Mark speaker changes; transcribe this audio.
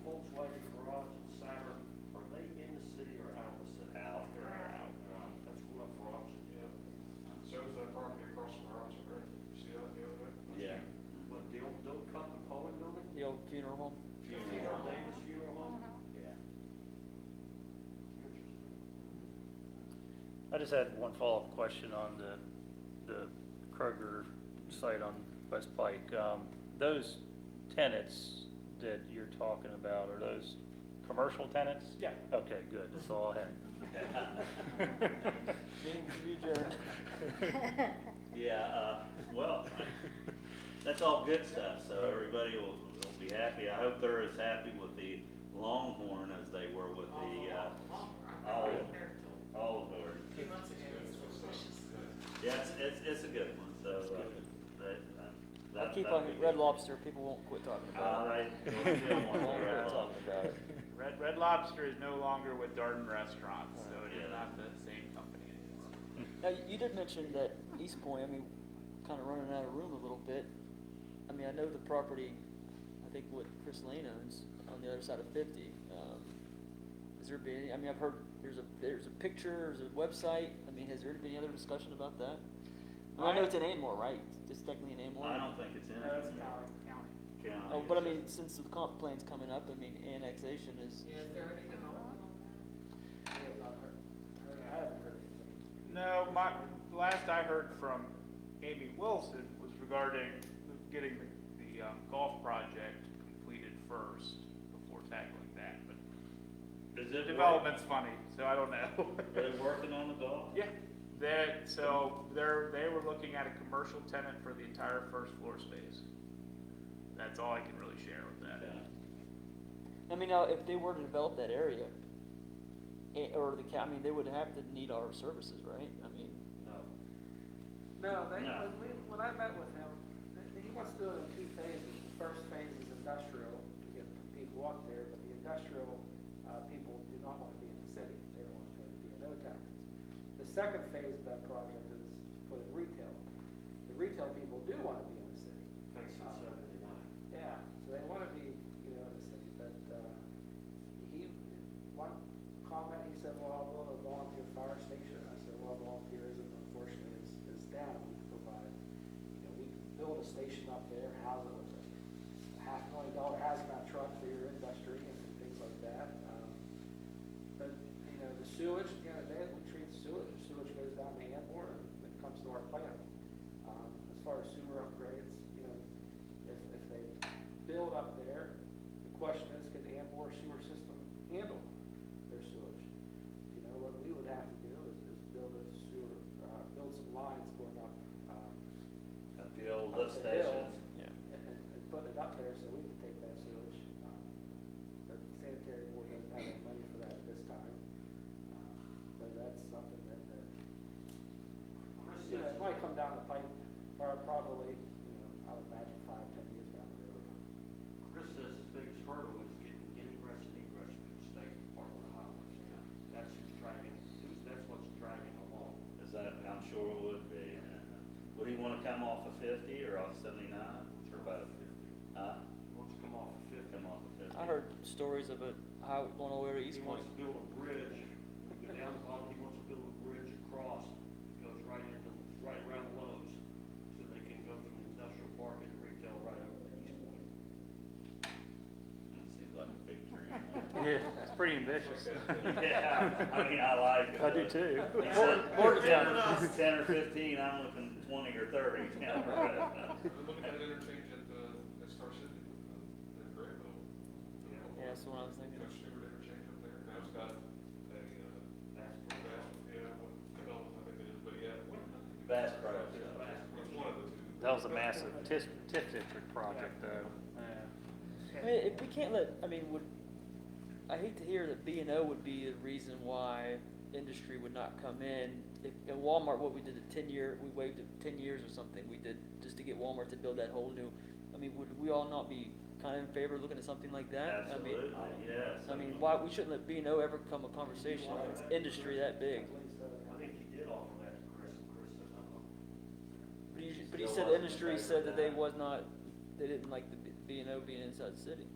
Speaker 1: Chevy garage and Siren, are they in the city or out of the city?
Speaker 2: Out.
Speaker 1: They're out, uh, that's what I'm watching,
Speaker 3: Yeah. So is that property across from Robinson Road, you see that the other day?
Speaker 2: Yeah.
Speaker 1: but they don't, don't cut the Cohen building?
Speaker 4: The old funeral home? Uh-huh.
Speaker 1: Funeral Davis funeral home?
Speaker 2: Yeah.
Speaker 1: Interesting.
Speaker 5: I just had one follow-up question on the, the Kroger site on West Pike. Um, those tenants that you're talking about, are those commercial tenants?
Speaker 4: Yeah.
Speaker 5: Okay, good, that's all I had.
Speaker 4: Meeting to be adjourned.
Speaker 2: Yeah, uh, well, that's all good stuff, so everybody will, will be happy. I hope they're as happy with the Longhorn as they were with the, uh, all, all of ours.
Speaker 6: Two months ago, it was delicious.
Speaker 2: Yeah, it's, it's, it's a good one, so, uh, that, that.
Speaker 4: I keep
Speaker 2: that'll
Speaker 4: on
Speaker 2: be good. Uh,
Speaker 4: Red Lobster, people won't quit talking about
Speaker 2: I,
Speaker 4: it.
Speaker 2: don't feel
Speaker 4: Won't
Speaker 2: one for
Speaker 4: quit
Speaker 2: Red
Speaker 4: talking
Speaker 2: Lobster.
Speaker 4: about it.
Speaker 7: Red, Red Lobster is no longer with Darden Restaurants, so it
Speaker 2: Oh, Yeah.
Speaker 7: is not the same company anymore.
Speaker 4: Now, you- you did mention that East Point, I mean, kind of running out of room a little bit. I mean, I know the property, I think what Chris Lane owns on the other side of fifty. Um, Has there been, any- I mean, I've heard there's a, there's a picture, there's a website. I mean, has there been any other discussion about that? I mean, I know it's in Amor, right? It's technically in Amor.
Speaker 2: I don't think it's in.
Speaker 6: That's Dollar County.
Speaker 2: County.
Speaker 4: Oh, but I mean, since the comp plan's coming up, I mean, annexation is,
Speaker 6: Yeah, is there anything on? Yeah, about her.
Speaker 1: I haven't heard anything.
Speaker 7: No, my, the last I heard from Amy Wilson was regarding getting the, the um, golf project completed first before tackling that, but
Speaker 2: Is
Speaker 7: the
Speaker 2: it development?
Speaker 7: development's funny, so I don't know.
Speaker 2: Are they working on the golf?
Speaker 7: Yeah, that, so they're, they were looking at a commercial tenant for the entire first floor space. That's all I can really share with that.
Speaker 2: Okay.
Speaker 4: I mean, now, if they were to develop that area, eh, or the, ca- I mean, they would have to need our services, right? I mean,
Speaker 1: No.
Speaker 8: No, they,
Speaker 2: No.
Speaker 8: when we, when I met with him, th- he wants to do it in two phases. The first phase is industrial, to get people up there, but the industrial, uh, people do not want to be in the city. They don't want to pay the no taxes. The second phase of that project is for the retail. The retail people do want to be in the city.
Speaker 1: Thanks for seventy-nine.
Speaker 8: Yeah, so they want to be, you know, in the city, but, uh, he, one comment, he said, well, I'll build a volunteer fire station. I said, well, volunteerism unfortunately is, is down. We can provide, you know, we can build a station up there, house it with a half million dollar hazmat truck for your industry and things like that. Um, But, you know, the sewage, you know, they, we treat sewage, sewage goes down the Antwerp and it comes to our plant. Um, as far as sewer upgrades, you know, if, if they build up there, the question is, can the Amboy sewer system handle their sewage? You know, what we would have to do is, is build a sewer, uh, build some lines going up, um,
Speaker 2: At the old
Speaker 8: Up
Speaker 2: lift
Speaker 8: the
Speaker 2: station.
Speaker 8: hill.
Speaker 4: yeah.
Speaker 8: and, and and put it up there so we can take that sewage. Um, But sanitary board doesn't have any money for that at this time. Um, But that's something that, that, you know, it might come down the pipe, or probably, you know, I would imagine five, ten years down the road.
Speaker 1: Chris says his biggest hurdle is getting ingress and egress from the state department of highways. That's what's dragging, that's what's dragging along.
Speaker 2: Is that, I'm sure it would be. Would he wanna come off of fifty or off seventy-nine? Or both? Huh?
Speaker 1: He wants to come off of fifty.
Speaker 2: Come off of fifty?
Speaker 4: I heard stories of a highway going all the way to
Speaker 1: He
Speaker 4: East Point.
Speaker 1: wants to build a bridge, go down the bottom, he wants to build a bridge across, goes right into, right around Lowe's, so they can go from the industrial park and retail right over to East Point.
Speaker 2: Seems like a big dream.
Speaker 7: Yeah, it's pretty ambitious.
Speaker 2: Yeah, I mean, I like it.
Speaker 5: I do
Speaker 2: but-
Speaker 5: too.
Speaker 2: He said,
Speaker 4: Morgantown.
Speaker 2: "Ten or- Ten or fifteen, I'm looking twenty or thirty.
Speaker 3: We're looking at an interchange at the, at Star City, uh, at Grayville.
Speaker 4: Yeah, that's what I was thinking.
Speaker 3: Coach Stewart interchange up there, now it's got a, uh,
Speaker 1: That's
Speaker 3: Bass, yeah, what development I think it is, but yeah. what-
Speaker 2: Bass Pro Shop.
Speaker 3: It's one of the two.
Speaker 5: That was a massive TIF, TIF district project though.
Speaker 4: I mean, if we can't let, I mean, would, I hate to hear that B and O would be the reason why industry would not come in. If, in Walmart, what we did, the ten year, we waived it ten years or something, we did, just to get Walmart to build that whole new, I mean, would we all not be kind of in favor of looking at something like that? I mean,
Speaker 2: Absolutely, yes.
Speaker 4: I mean, why, we shouldn't let B and O ever come a conversation,
Speaker 1: Why?
Speaker 4: it's industry that big.
Speaker 8: uh,
Speaker 1: I think he did offer that to Chris, and Chris said, no.
Speaker 4: But he, but he said the industry said that they was not, they didn't like the B and O being inside the city.